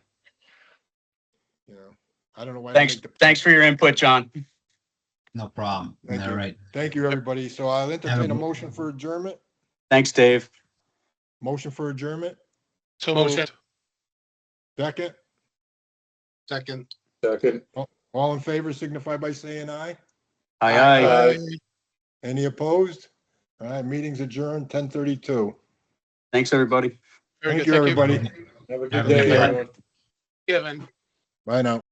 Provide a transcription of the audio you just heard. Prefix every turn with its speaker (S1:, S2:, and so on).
S1: you know, I don't know why. they
S2: Thanks,
S1: make the-
S2: thanks for your input, John.
S3: No problem.
S1: Thank
S3: All
S1: you.
S3: right.
S1: Thank you, everybody. So I'll entertain a motion for adjournment,
S2: Thanks, Dave.
S1: motion for adjournment,
S4: So moved.
S1: second,
S4: Second.
S5: Second.
S1: all in favor signify by saying aye.
S2: Aye, aye.
S5: Aye.
S1: Any opposed? All right, meeting's adjourned, ten thirty-two.
S2: Thanks, everybody.
S4: Very
S1: Thank
S4: good.
S1: you, everybody.
S5: Have a
S3: Have
S5: good
S3: a good
S5: day,
S3: one.
S5: everyone.
S4: Kevin.
S1: Bye now.